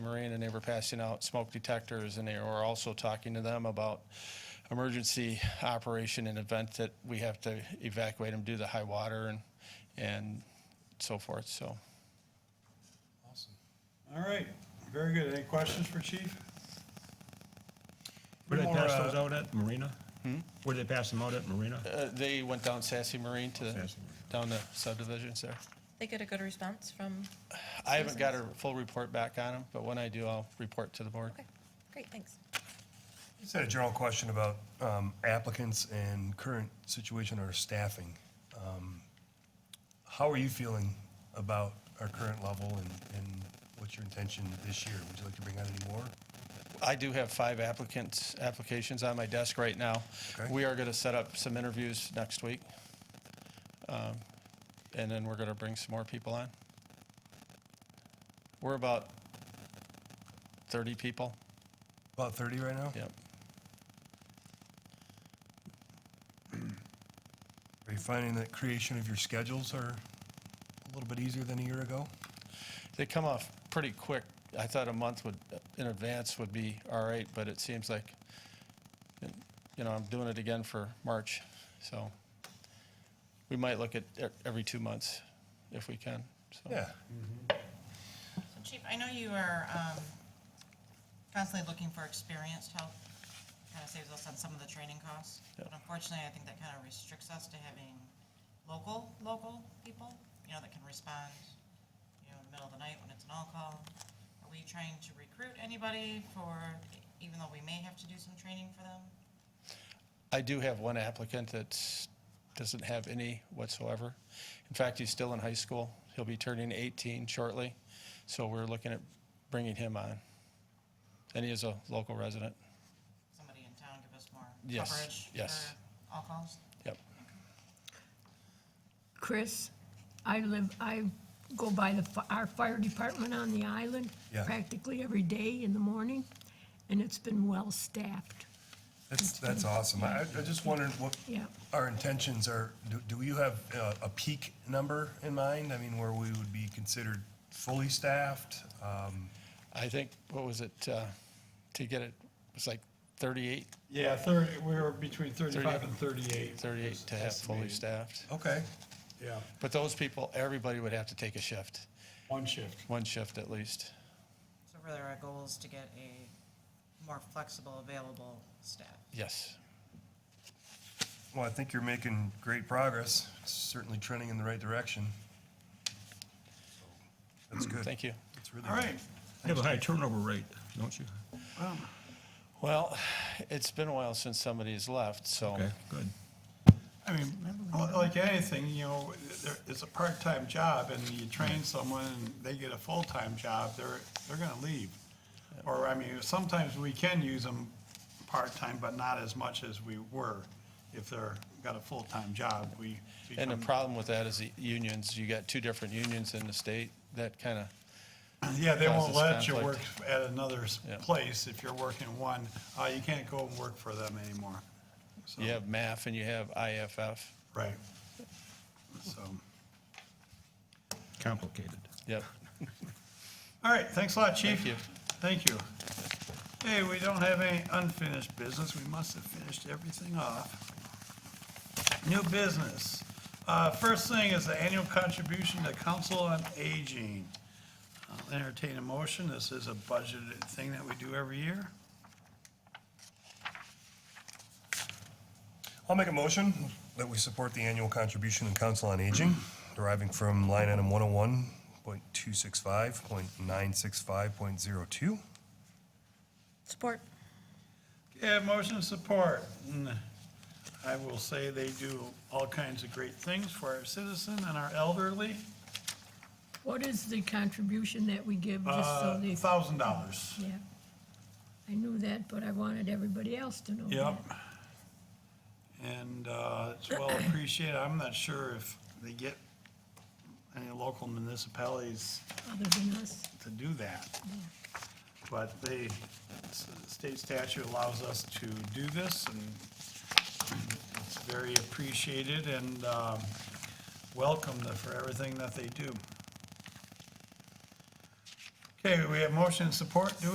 rain, and they were passing out smoke detectors, and they were also talking to them about emergency operation in event that we have to evacuate them due to high water and, and so forth, so. Awesome. All right, very good. Any questions for Chief? Where they More, pass uh, those out at, Marina? Where they pass them out at, Marina? Uh, they went down Sassy Marine to, the- Sassy Marine. down the subdivisions there. They get a good response from, I haven't got a full report back on them, but when I do, I'll report to the board. okay, great, thanks. Just had a general question about um, applicants and current situation or staffing. Um, How are you feeling about our current level and, and what's your intention this year? Would you like to bring on any more? I do have five applicants, applications on my desk right now. Okay. We are going to set up some interviews next week. Um, And then we're going to bring some more people on. We're about 30 people. About 30 right now? Yep. Are you finding that creation of your schedules are a little bit easier than a year ago? They come off pretty quick. I thought a month would, in advance would be all right, but it seems like, you know, I'm doing it again for March. So we might look at e- every two months if we can, so. Yeah. So Chief, I know you are um, constantly looking for experienced help, kind of saves us on some of the training costs. Yeah. But unfortunately, I think that kind of restricts us to having local, local people, you know, that can respond, you know, in the middle of the night when it's an all-call. Are we trying to recruit anybody for, even though we may have to do some training for them? I do have one applicant that doesn't have any whatsoever. In fact, he's still in high school. He'll be turning 18 shortly, so we're looking at bringing him on. And he is a local resident. Somebody in town give us more Yes, coverage yes. for all-calls? Yep. Chris, I live, I go by the, fi- our fire department on the island Yeah. practically every day in the morning, and it's been well-staffed, That's, that's awesome. I, I just wondered what yeah. our intentions are. Do, do you have uh, a peak number in mind? I mean, where we would be considered fully staffed? Um, I think, what was it, uh, to get it, it's like 38, Yeah, thirty, we were between thirty-five 35 and and thirty-eight. 38 to have fully staffed. Okay. Yeah, But those people, everybody would have to take a shift, one shift. one shift at least. So really, our goal is to get a more flexible, available staff. Yes. Well, I think you're making great progress, certainly trending in the right direction. That's good. Thank you. That's really All right, You have a high turnover rate, don't you? Well, it's been a while since somebody's left, so. Okay, good. I mean, like anything, you know, there, it's a part-time job and you Mm-hmm. train someone and they get a full-time job, they're, they're gonna leave. Or, I mean, sometimes we can use them part-time, but not as much as we were. If they're, got a full-time job, we. And the become- problem with that is the unions, you got two different unions in the state that kind of, Yeah, they won't causes let you work conflict. at another s- Yeah. place if you're working one. Uh, you can't go and work for them anymore. So- you have MAF and you have IFF. Right. So, Complicated. Yep. all right, thanks a lot, Chief. Thank you. Thank you. Hey, we don't have any unfinished business. We must have finished everything off. New business. Uh, first thing is the annual contribution to Council on Aging. I'll Entertain a motion. This is a budgeted thing that we do every year. I'll make a motion that we support the annual contribution in Council on Aging deriving from line item 101.265.965.02. Support. Yeah, motion and support. And I will say they do all kinds of great things for our citizen and our elderly. What is the contribution that we give just so Uh, they, thousand dollars. yeah? I knew that, but I wanted everybody else to know that. Yep. And, uh, it's well appreciated. I'm not sure if they get any local municipalities Other than us, to do that. But they, s- state statute allows us to do this, and it's very appreciated and um, welcomed for everything that they do. Okay, we have motion and support. Do